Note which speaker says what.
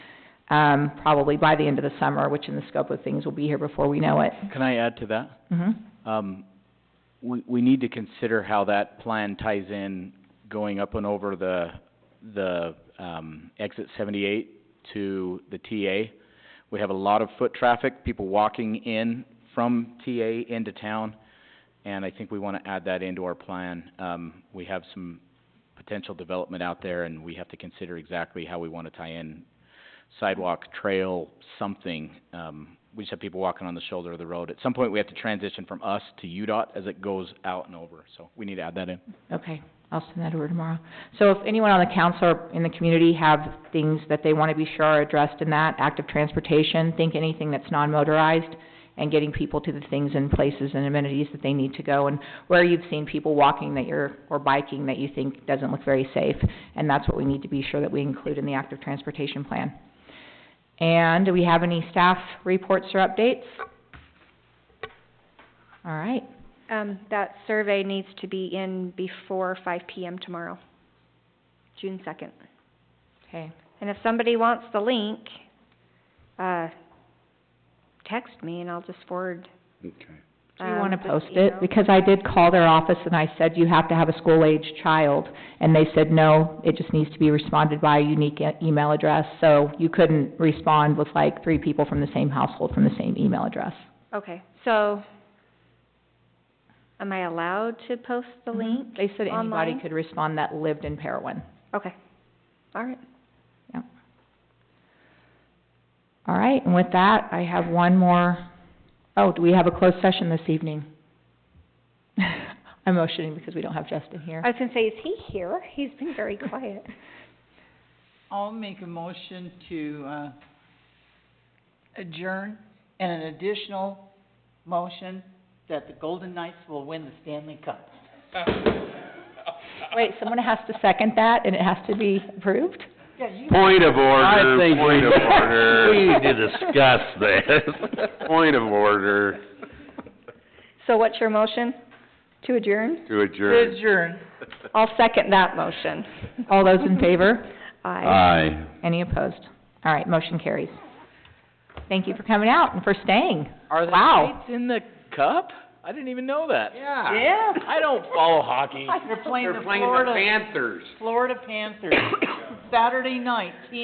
Speaker 1: um, probably by the end of the summer, which in the scope of things will be here before we know it.
Speaker 2: Can I add to that?
Speaker 1: Mhm.
Speaker 2: Um, we, we need to consider how that plan ties in going up and over the, the, um, exit seventy-eight to the TA. We have a lot of foot traffic, people walking in from TA into town, and I think we wanna add that into our plan. Um, we have some potential development out there, and we have to consider exactly how we wanna tie in sidewalk, trail, something. Um, we just have people walking on the shoulder of the road. At some point, we have to transition from us to UDOT as it goes out and over, so we need to add that in.
Speaker 1: Okay, I'll send that over tomorrow. So if anyone on the council or in the community have things that they want to be sure are addressed in that, active transportation, think anything that's non-motorized, and getting people to the things and places and amenities that they need to go, and where you've seen people walking that you're, or biking that you think doesn't look very safe, and that's what we need to be sure that we include in the active transportation plan. And do we have any staff reports or updates? All right.
Speaker 3: Um, that survey needs to be in before five PM tomorrow, June second.
Speaker 1: Okay.
Speaker 3: And if somebody wants the link, uh, text me and I'll just forward,
Speaker 4: Okay.
Speaker 1: Do you wanna
Speaker 3: um, this
Speaker 1: post
Speaker 3: email.
Speaker 1: it? Because I did call their office and I said, you have to have a school-aged child. And they said, no, it just needs to be responded by a unique e- email address. So you couldn't respond with like three people from the same household from the same email address.
Speaker 3: Okay, so, am I allowed to post the link?
Speaker 1: They said anybody
Speaker 3: online?
Speaker 1: could respond that lived in Parowan.
Speaker 3: Okay, all right.
Speaker 1: All right, and with that, I have one more, oh, do we have a closed session this evening? I'm motioning because we don't have Justin here.
Speaker 3: I was gonna say, is he here? He's been very quiet.
Speaker 5: I'll make a motion to, uh, adjourn, and an additional motion that the Golden Knights will win the Stanley Cup.
Speaker 1: Wait, someone has to second that and it has to be approved?
Speaker 5: Yeah, you
Speaker 4: Point of
Speaker 6: I
Speaker 4: order,
Speaker 6: think
Speaker 4: point of
Speaker 6: we-
Speaker 4: order.
Speaker 6: we need to discuss this.
Speaker 4: Point of order
Speaker 3: So what's your motion? To adjourn?
Speaker 4: to adjourn.
Speaker 5: adjourn.
Speaker 3: I'll second that motion.
Speaker 1: All those in favor?
Speaker 4: Uh,
Speaker 3: Aye.
Speaker 4: Aye.
Speaker 1: Any opposed? All right, motion carries. Thank you for coming out and for staying.
Speaker 2: Are the
Speaker 1: Wow.
Speaker 2: Knights in the cup? I didn't even know that.
Speaker 5: Yeah,
Speaker 2: I don't follow hockey.
Speaker 5: they're playing the Florida,
Speaker 4: Panthers.
Speaker 5: Florida Panthers, Saturday night,